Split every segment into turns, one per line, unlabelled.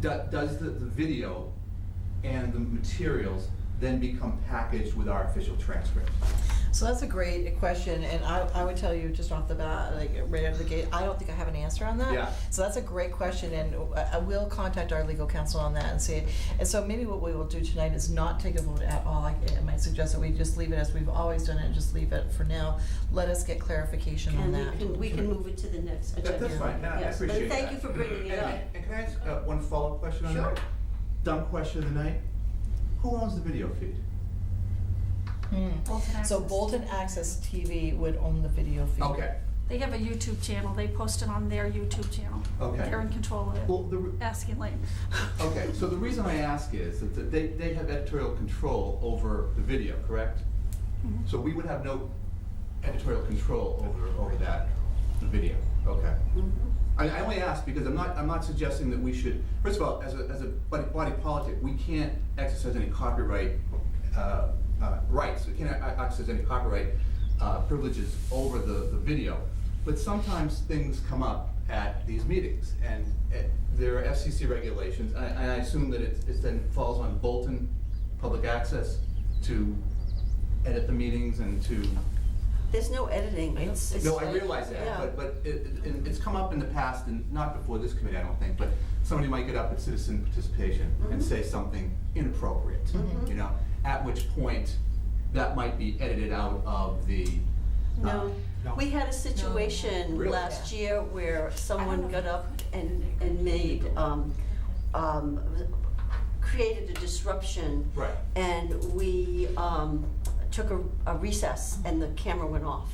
do- does the, the video and the materials then become packaged with our official transcripts?
So that's a great question, and I, I would tell you just off the bat, like right out of the gate, I don't think I have an answer on that.
Yeah.
So that's a great question, and I I will contact our legal counsel on that and see. And so maybe what we will do tonight is not take a vote at all. I, I might suggest that we just leave it as we've always done it, and just leave it for now. Let us get clarification on
And uh, we
that.
can, we can move it to the next
That-
agenda.
that's fine, No, I
Yes,
appreciate
But
that.
thank you for bringing it
And-
up.
And can I ask uh, one follow-up question on
Sure.
that? Dumb question of the night, who owns the video feed?
Hmm.
Bolton Access.
So Bolton Access TV would own the video feed.
Okay,
They have a YouTube channel. They post it on their YouTube channel.
Okay.
They're in control of it.
well, the, re-
Asking Lane.
okay, so the reason I ask is that they, they have editorial control over the video, correct?
Mm-hmm.
Mhm.
So we would have no editorial control over, over that video, okay?
Mhm.
I, I only ask because I'm not, I'm not suggesting that we should, first of all, as a, as a body, body politic, we can't exercise any copyright, uh, uh, rights, we can't e- exercise any copyright, uh, privileges over the, the video. But sometimes things come up at these meetings, and, uh, there are FCC regulations, and I, and I assume that it's, it's then falls on Bolton Public Access to edit the meetings and to
There's no editing, it's, it's.
no, I
like-
realize that,
yeah.
but, but it, it- it's come up in the past, and not before this committee, I don't think, but somebody might get up at citizen participation and
Mhm.
say something inappropriate,
Mhm.
you know? At which point, that might be edited out of the. uh,
No, we had a situation
Really?
last year where
know
someone
if
got
we
up
could.
and, and made, um, um, created a disruption.
Right.
And we, um, took a- a recess and the camera went off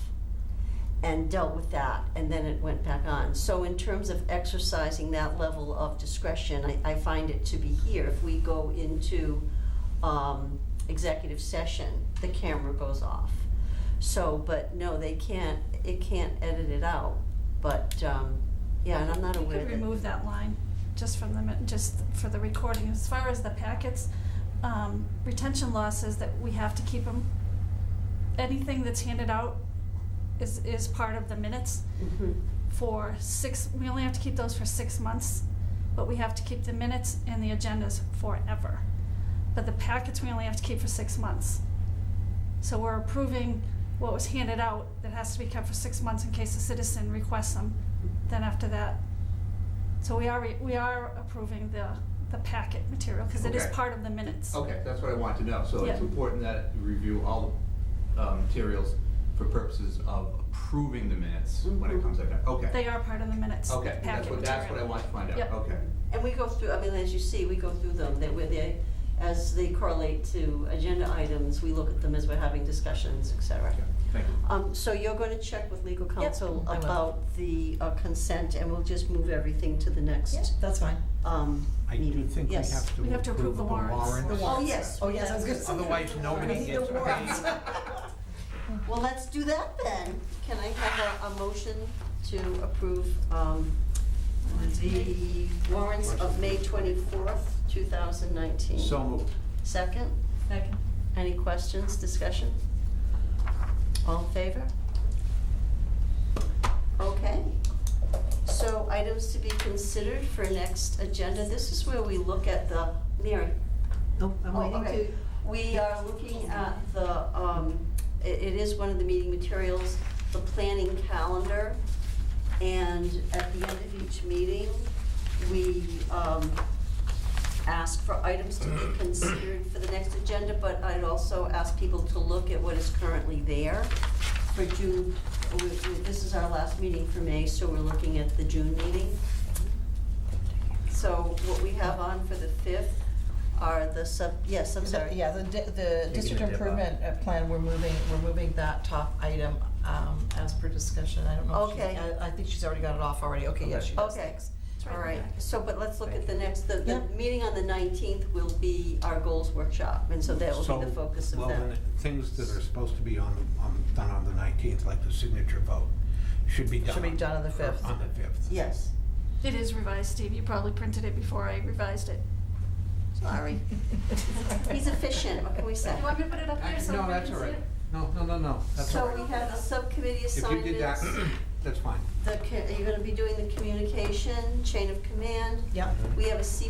and dealt with that, and then it went back on. So in terms of exercising that level of discretion, I, I find it to be here. If we go into, um, executive session, the camera goes off. So, but no, they can't, it can't edit it out, but, um, yeah, and I'm not
We
aware
could
that.
remove that line, just from the, mi- just for the recording. As far as the packets, um, retention law says that we have to keep them. Anything that's handed out is, is part of the minutes
Mhm.
for six, we only have to keep those for six months, but we have to keep the minutes and the agendas forever. But the packets, we only have to keep for six months. So we're approving what was handed out that has to be kept for six months in case a citizen requests them, then after that. So we are, we are approving the, the packet material, because it is
Okay.
part of the minutes.
Okay, that's what I want to know, so it's
Yeah.
important that you review all the uh, materials for purposes of approving the minutes when it
Mhm.
comes like that, okay.
They are part of the minutes, the
Okay,
packet
that's
material.
what, that's what I want to find out,
Yep.
okay.
And we go through, I mean, as you see, we go through them, they, where they, as they correlate to agenda items, we look at them as we're having discussions, et cetera.
Okay, Thank you.
Um, so you're gonna check with legal counsel
I will.
about the uh, consent, and we'll just move everything to the next,
That's fine.
um,
I
meeting,
do think we
yes.
have
We
to
have to approve
approve
the
the
warrants.
warrant.
The warrants.
Oh, yes.
Oh, yes, I was gonna say.
Otherwise,
I
nobody
need the
gets
warrants.
paid.
Well, let's do that then. Can I have a, a motion to approve, um, the warrants of May twenty-fourth, two thousand nineteen?
So moved.
Second?
Second.
Any questions, discussion? All in favor? Okay. So items to be considered for next agenda, this is where we look at the, Mary?
Nope, I'm
Oh,
waiting
okay.
to,
We are looking at the, um, i- it is one of the meeting materials, the planning calendar. And at the end of each meeting, we, um, ask for items to be considered for the next agenda, but I'd also ask people to look at what is currently there for June. we- we- This is our last meeting for May, so we're looking at the June meeting. So what we have on for the fifth are the sub, yes, I'm
The-
sorry.
Yeah, the, di- the
a
district
dip up.
improvement uh, plan, we're moving, we're moving that top item um, as per discussion. I don't know. if she-
Okay.
I, I think she's already got it off already. Okay, yeah, she does.
Okay,
Thanks.
It's right
all
in the
right,
packet.
so, but let's look at the next, the,
Yeah.
the meeting on the nineteenth will be our goals workshop, and so that will be the
So,
focus of
well,
that.
then the Things that are supposed to be on, on, done on the nineteenth, like the signature vote, should be done.
Should be done on the 5th.
On the fifth.
Yes,
It is revised, Steve. You probably printed it before I revised it.
sorry, he's efficient, what can we say?
You want me to put it up there so
No,
everyone
that's
can
all
see
right.
it?
No, no, no, no, that's all
So
right.
we have the subcommittee
If you did that,
assignments,
that's fine.
the, co- you're gonna be doing the communication, chain of command.
Yep.
We have a C